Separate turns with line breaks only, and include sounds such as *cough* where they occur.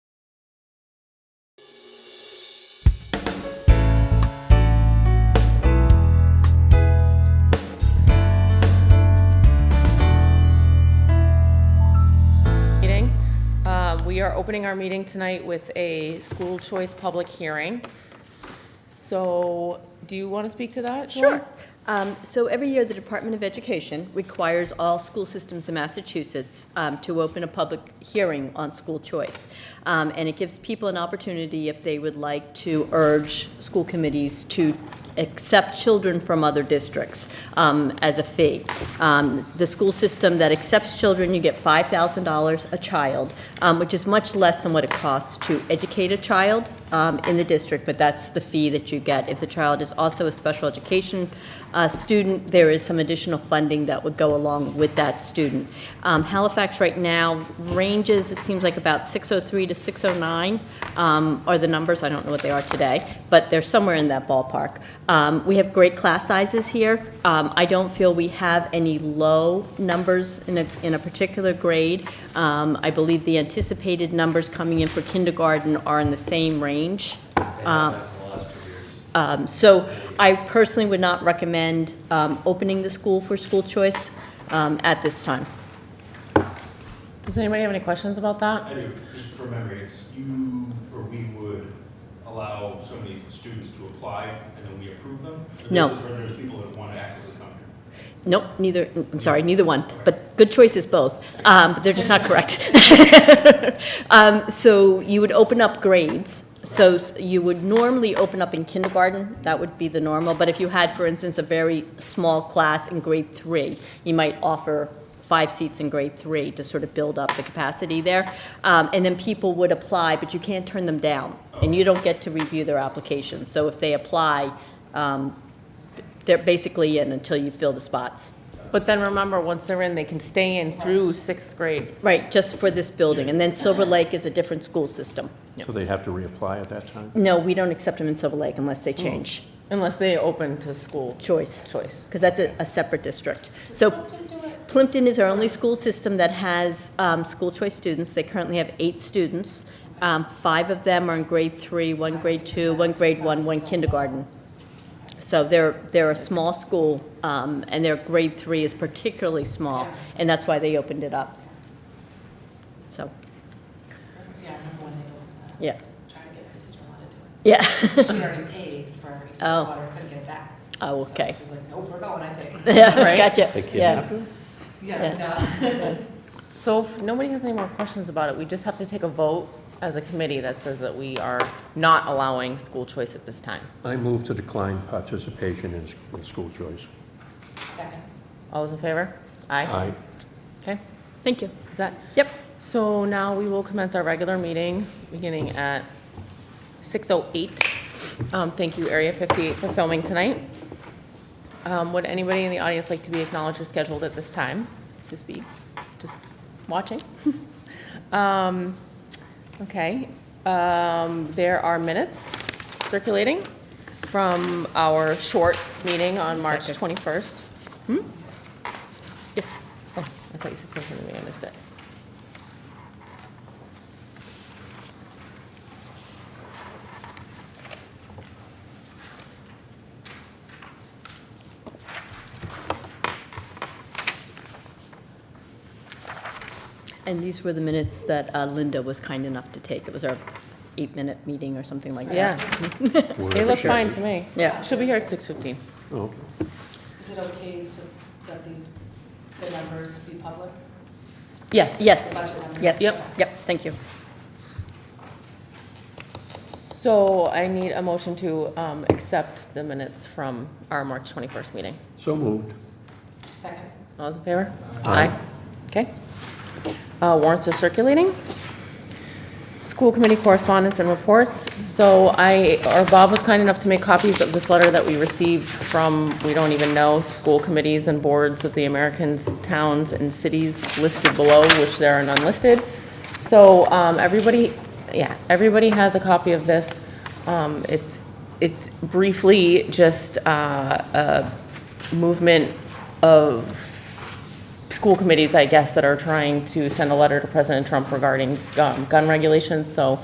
Uh, we are opening our meeting tonight with a school choice public hearing. So, do you want to speak to that? Joy?
Sure. Um, So every year, the Department of Education requires all school systems in Massachusetts um, to open a public hearing on school choice. Um, And it gives people an opportunity, if they would like, to urge school committees to accept children from other districts um, as a fee. Um, The school system that accepts children, you get $5,000 a child, um, which is much less than what it costs to educate a child um, in the district, but that's the fee that you get. If the child is also a special education uh, student, there is some additional funding that would go along with that student. Um, Halifax right now ranges, it seems like about 603 to 609 um, are the numbers, I don't know what they are today, but they're somewhere in that ballpark. Um, We have great class sizes here. Um, I don't feel we have any low numbers in a, in a particular grade. Um, I believe the anticipated numbers coming in for kindergarten are in the same range. Um, um, So I personally would not recommend um, opening the school for school choice um, at this time.
Does anybody have any questions about that?
I do, just from memory, it's you, or we would allow so many students to apply, and then we approve them? Or
No.
there's- Or there's people that want to actively come here?
Nope, neither, I'm sorry, neither one, but good choice is both, um, but they're just not correct. *laughs* Um, so you would open up grades, so s- you would normally open up in kindergarten, that would be the normal, but if you had, for instance, a very small class in grade three, you might offer five seats in grade three to sort of build up the capacity there. Um, and then people would apply, but you can't turn them down, and you don't get to review their application. So if they apply, um, they're basically in until you fill the spots.
But then remember, once they're in, they can stay in through sixth grade.
Right, just for this building. And then Silver Lake is a different school system.
So they'd have to reapply at that time?
No, we don't accept them in Silver Lake unless they change
Unless they open to school
choice,
choice.
because that's a, a separate district. So Plimpton is our only school system that has um, school choice students. They currently have eight students. Um, Five of them are in grade three, one grade two, one grade one, one kindergarten. So they're, they're a small school, um, and their grade three is particularly small, and that's why they opened it up. So,
Yeah, I remember when they were
yeah,
trying to get my sister-in-law to do
yeah. *laughs*
it. She already paid for her
Oh.
expensive water, couldn't get it back.
Oh,
So
okay.
She's like, nope, we're going, I
*laughs*
paid.
Yeah,
Right?
Gotcha,
They
yeah.
kidnapped her?
Yeah, uh, no.
So if nobody has any more questions about it, we just have to take a vote as a committee that says that we are not allowing school choice at this time.
I move to decline participation in s- in school choice.
Second.
All those in favor? Aye.
Aye.
Okay,
Thank you.
is that?
Yep.
So now we will commence our regular meeting, beginning at 6:08. Um, Thank you, Area 58, for filming tonight. Um, Would anybody in the audience like to be acknowledged or scheduled at this time? Just be, just watching? *laughs* Um, Okay. Um, There are minutes circulating from our short meeting on March 21st.
Yes.
Oh, I thought you said something to me, I missed it.
And these were the minutes that uh, Linda was kind enough to take. It was our eight-minute meeting or something like
*laughs*
that.
Yeah,
Word
they
of
look
the
fine
shepherd.
to me.
Yeah.
She'll be here at 6:15.
Oh, Okay.
Is it okay to let these, the numbers be public?
Yes.
The
Yes,
budget numbers?
yes.
Yep.
Yep, thank you.
So I need a motion to um, accept the minutes from our March 21st meeting.
So moved.
Second.
All those in favor?
Aye.
Okay. Uh, Warrants are circulating. School committee correspondence and reports. So I, or Bob was kind enough to make copies of this letter that we received from, we don't even know, school committees and boards of the Americans, towns, and cities listed below, which there are none listed. So um, everybody, yeah, everybody has a copy of this. Um, It's, it's briefly just uh, a movement of school committees, I guess, that are trying to send a letter to President Trump regarding um, gun regulations. So